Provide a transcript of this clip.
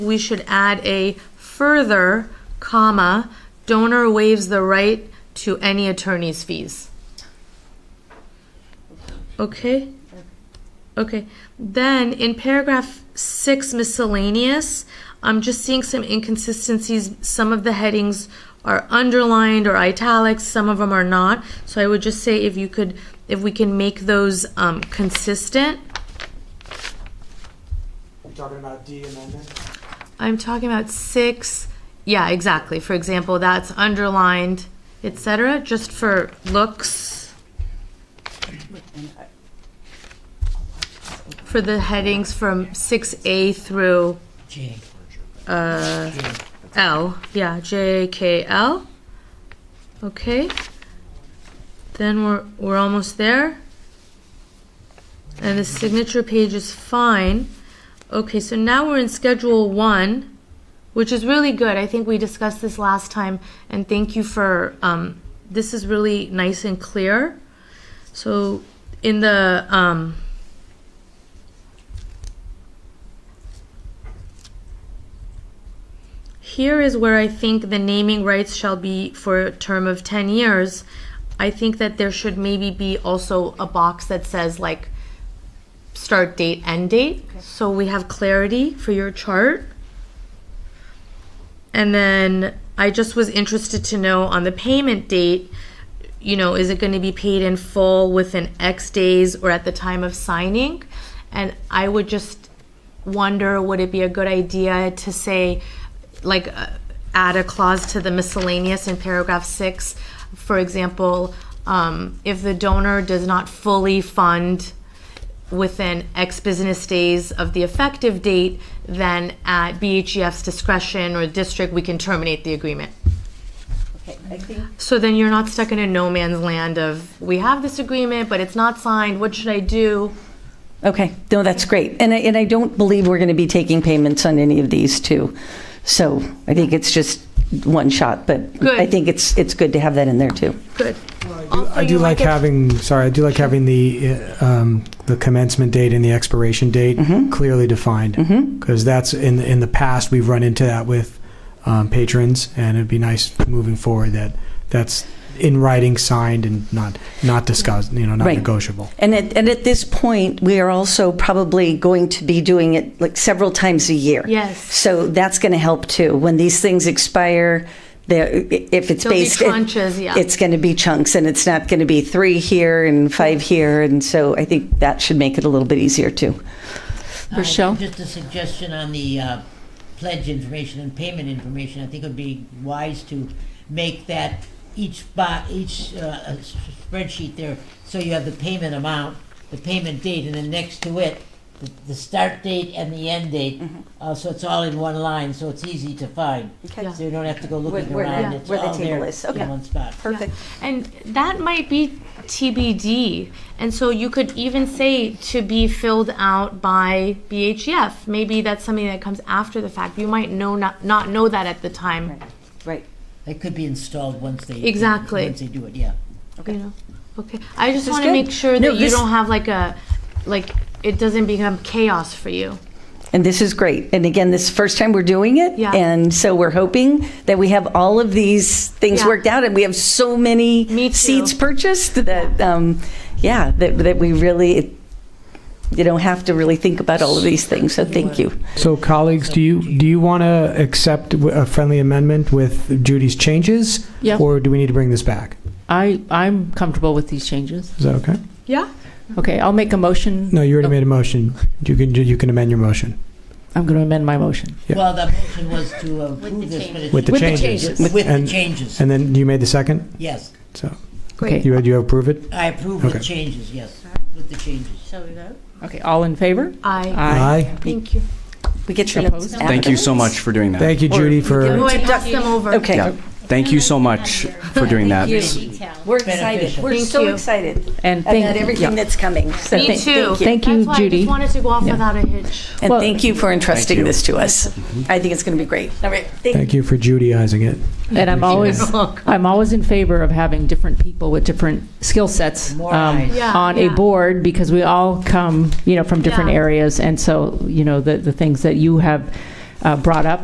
we should add a further, comma, donor waives the right to any attorney's fees. Okay? Okay, then in paragraph six miscellaneous, I'm just seeing some inconsistencies. Some of the headings are underlined or italics, some of them are not. So I would just say if you could, if we can make those um, consistent. You're talking about D amendment? I'm talking about six, yeah, exactly. For example, that's underlined, et cetera, just for looks, for the headings from six A through uh, G. L, yeah, J K L. Okay. Then we're we're almost there. And the signature page is fine. Okay, so now we're in schedule 1, which is really good. I think we discussed this last time and thank you for um, this is really nice and clear. So in the um, Here is where I think the naming rights shall be for a term of 10 years. I think that there should maybe be also a box that says like start date, end date. So we have clarity for your chart. And then I just was interested to know on the payment date, you know, is it going to be paid in full within X days or at the time of signing? And I would just wonder would it be a good idea to say, like, uh, add a clause to the miscellaneous in paragraph six? For example, um, if the donor does not fully fund within X business days of the effective date, then at BHGF's discretion or district, we can terminate the agreement. Okay, I think, So then you're not stuck in a no man's land of, we have this agreement, but it's not signed, what should I do? okay, no, that's great. And I, and I don't believe we're going to be taking payments on any of these two. So I think it's just one shot, but I Good. think it's, it's good to have that in there too. Good. I do like having, sorry, I do like having the, uh, um, the commencement date and the expiration date clearly defined. Because that's, in, in the past, we've run into that with um, patrons, and it'd be nice moving forward that that's in writing, signed, and not, not discussed, you know, not Right. negotiable. And at, and at this point, we are also probably going to be doing it like several times a year. Yes. So that's going to help too. When these things expire, they're- if it's There'll be based, it- tranches, yeah. it's going to be chunks, and it's not going to be three here and five here. And so I think that should make it a little bit easier too. Uh, Rochelle? Just a suggestion on the uh, pledge information and payment information. I think it would be wise to make that each bo each uh, s- spreadsheet there, so you have the payment amount, the payment date, and then next to it, the, the start date and the end date. Mm-hmm. Uh, so it's all in one line, so it's easy to find. Okay. Yeah. So you don't have to go looking Where- where the- around. it's where the all table there is. Okay. in one spot. Perfect. And that might be TBD. And so you could even say to be filled out by BHF. Maybe that's something that comes after the fact. You might know not, not know that at the time. Right. It could be installed once they Exactly. once they do it. Yeah. You know? Okay. I just is want to good. make sure No, that you this- don't have like a, like, it doesn't become chaos for you. And this is great. And again, this is the first time we're doing it. Yeah. And so we're hoping that we have all of these things Yeah. worked out and we have so many Me too. seats purchased that, um, yeah, that, that we really, you don't have to really think about all of these things. So thank you. So colleagues, do you, do you want to accept a friendly amendment with Judy's changes? Yeah. Or do we need to bring this back? I, I'm comfortable with these changes. Is that okay? Yeah? Okay, I'll make a motion. No, you already Oh. made a motion. You can, you can amend your motion. I'm going to amend my motion. Yeah. Well, the motion was to approve this, but it's With the With the changes. changes. with the And- changes. And then you made the second, yes. so Great. Okay, you, you approve it? I approve with Okay. changes, yes, with the changes. okay, all in favor? Uh, I, Aye. thank you. We get your notes. Opposed? after Thank you this? so much for doing that. Thank you, Judy, for, Oh, I passed them over. Okay. Yeah. Thank you so much for doing that. We're excited. We're Thank so you. excited And about thank, everything yeah. that's coming. So Me thank- too. thank you. Thank you, That's why I Judy. just wanted to go off Yeah. without a hitch. And Well- thank you for entrusting you. Mm-hmm. this to us. I think it's going to be great. All right. Thank thank you for Judyizing it. And I'm always, Oh, I'm always in favor of having different people with different skill sets More um, eyes. Yeah, on a yeah. board because we all come, you know, from different Yeah. areas. And so, you know, the, the things that you have uh, brought up